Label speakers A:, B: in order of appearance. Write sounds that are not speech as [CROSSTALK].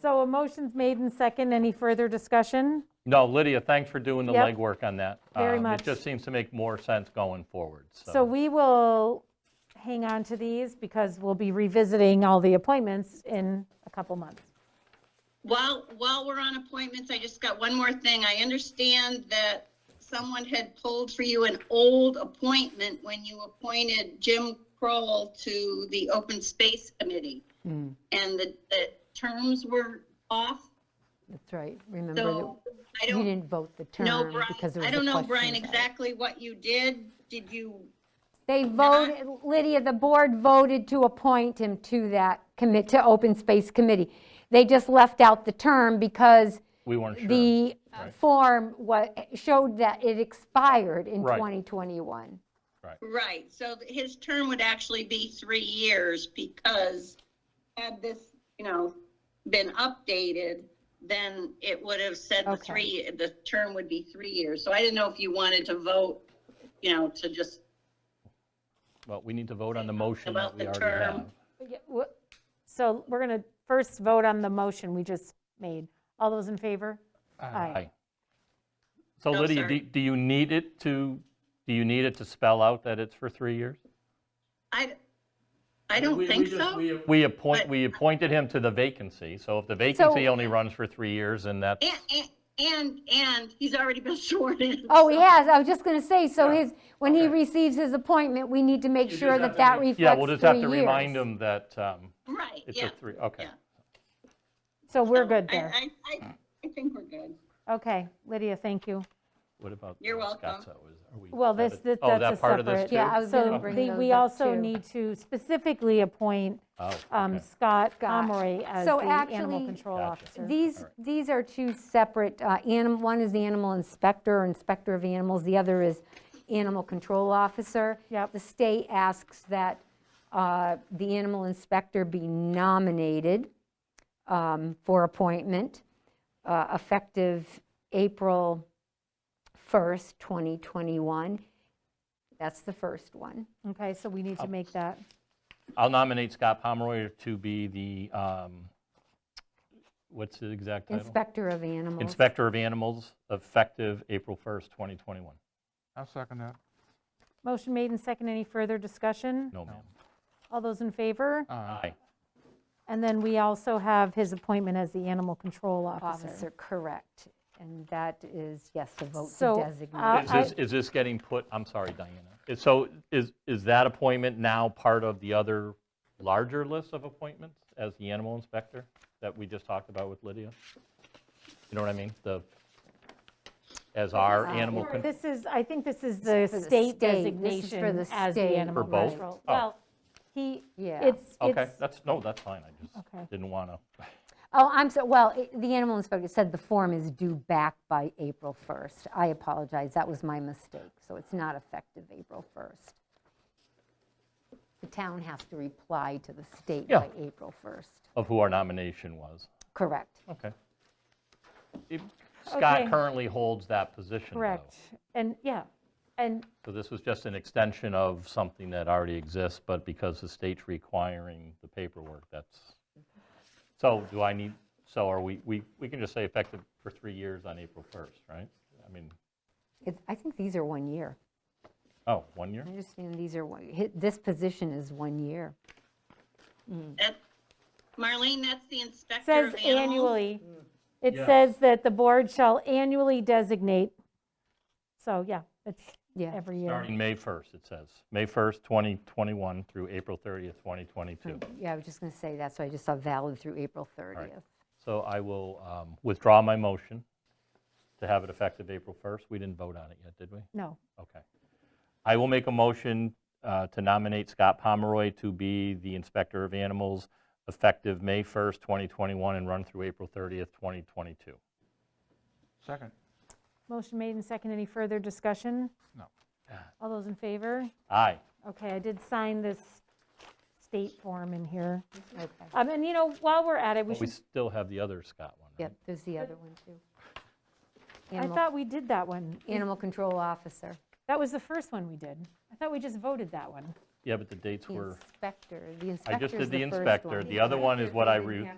A: So a motion's made and second. Any further discussion?
B: No, Lydia, thanks for doing the
A: Yep.
B: legwork on that.
A: Very
B: Um,
A: much.
B: It just seems to make more sense going forward, so.
A: So we will hang on to these because we'll be revisiting all the appointments in a couple months.
C: While, while we're on appointments, I just got one more thing. I understand that someone had pulled for you an old appointment when you appointed Jim Kroll to the Open Space Committee.
D: Hmm.
C: And the, the terms were off,
D: That's right, remember,
C: so
D: that
C: I
D: we
C: don't
D: didn't vote the
C: know,
D: term because there
C: Brian,
D: was
C: I
D: a
C: don't know,
D: question
C: Brian,
D: about it.
C: exactly what you did. Did you,
D: They voted, Lydia, the board voted to appoint him to that commit, to Open Space Committee. They just left out the term because
B: We weren't sure.
D: the uh, form wa, showed that it expired in
B: Right.
D: 2021.
C: right, so his term would actually be three years because had this, you know, been updated, then it would have said the
D: Okay.
C: three, the term would be three years. So I didn't know if you wanted to vote, you know, to just,
B: But we need to vote on the motion that
C: About
B: we
C: the
B: already
C: term.
B: have.
A: Yeah, wha- So we're going to first vote on the motion we just made. All those in favor? Aye.
B: Aye. So
C: No,
B: Lydia,
C: sorry.
B: do- do you need it to, do you need it to spell out that it's for three years?
C: I, I don't
B: We- we
C: think
B: just-
C: so.
B: we- We appoint,
C: But-
B: we appointed him to the vacancy, so if the vacancy only runs for three years, then that's
C: And, and, and, and he's already been [LAUGHS] sworn in.
D: Oh,
C: so-
D: he has, I was just going to say, so
B: Yeah.
D: his, when he
B: Okay.
D: receives his appointment, we need to make sure that that reflects
B: Yeah, we'll just have to
D: three
B: remind
D: years.
B: them that um,
C: Right,
B: it's
C: yeah.
B: a three, okay.
C: yeah.
A: So we're
C: So
A: good
C: I-
A: there.
C: I, I, I think we're good.
A: Okay, Lydia, thank you.
B: What about?
C: You're
B: uh,
C: welcome.
B: Scott's hours? Are we-
A: Well,
B: is that
A: this,
B: a-
A: this-
B: oh,
A: that's a
B: that part of this
A: separate.
B: too?
D: Yeah, I was gonna bring
A: So the-
D: those
A: we
D: up,
A: also
D: too.
A: need to specifically appoint
B: Oh,
A: um,
B: okay.
A: Scott
D: Scott.
A: Pomeroy as the
D: So
A: animal
D: actually,
A: control
B: Gotcha.
A: officer.
D: These,
B: Alright.
D: these are two separate, animal, one is the animal inspector, or inspector of animals, the other is animal control officer.
A: Yep.
D: The state asks that uh, the animal inspector be nominated um, for appointment uh, effective April 1st, 2021. That's the first one.
A: Okay, so we need to make that,
B: I'll nominate Scott Pomeroy to be the, um, what's the exact title?
D: Inspector of animals.
B: Inspector of Animals, effective April 1st, 2021.
E: I'll second that.
A: motion made and second, any further discussion?
B: No, ma'am.
A: All those in favor?
B: Aye.
A: And then we also have his appointment as the animal control officer.
D: Officer, correct. And that is, yes, the vote
A: So,
D: to
A: uh,
D: designate.
B: Is this, is this getting put, I'm sorry, Diana. Is- So is, is that appointment now part of the other larger list of appointments as the animal inspector that we just talked about with Lydia? You know what I mean? The,
D: Uh,
B: as our animal, con-
A: This is, I think this is the
D: for the
A: state
D: state. This is for
A: designation
D: the
A: as the
D: state.
A: animal
B: For both?
A: control.
B: Oh.
A: Well, he,
D: Yeah.
A: it's,
B: okay,
A: it's,
B: that's, no, that's fine. I
A: Okay.
B: just didn't want to.
D: Oh, I'm so, well, it- the animal inspector said the form is due back by April 1st. I apologize, that was my mistake, so it's not effective April 1st. The town has to reply to the state
B: Yeah.
D: by April 1st.
B: Of who our nomination was.
D: Correct.
B: Okay. If Scott
A: Okay.
B: currently holds that position, though.
A: correct. And, yeah, and
B: So this was just an extension of something that already exists, but because the state's requiring the paperwork, that's, so do I need, so are we, we, we can just say effective for three years on April 1st, right? I mean,
D: It- I think these are one year.
B: oh, one year?
D: I understand these are, one- hi- this position is one year.
C: That- Marlene, that's the inspector
A: says
C: of animals.
A: annually. It
B: Yeah.
A: says that the board shall annually designate. So, yeah, it's
D: Yeah.
A: every year.
B: Starting May 1st, it says. May 1st, 2021 through April 30th, 2022.
A: Hmm.
D: Yeah, I was just going to say that, so I just saw valid through April 30th.
B: So I will um, withdraw my motion to have it effective April 1st. We didn't vote on it yet, did we?
A: No,
B: Okay. I will make a motion uh, to nominate Scott Pomeroy to be the Inspector of Animals effective May 1st, 2021, and run through April 30th, 2022.
E: Second.
A: motion made and second. Any further discussion?
E: No.
A: All those in favor?
B: Aye.
A: Okay, I did sign this state form in here.
D: Okay.
A: Um, And, you know, while we're at it, we
B: But we
A: should,
B: still have the other Scott one, right?
D: Yep, there's the other one, too.
A: I
D: Animal-
A: thought we did that one.
D: Animal control officer.
A: That was the first one we did. I thought we just voted that one.
B: Yeah, but the dates
D: The
B: were,
D: inspector, the
B: I
D: inspector's
B: just did the
D: first
B: inspector.
D: one.
B: The other one is what I re,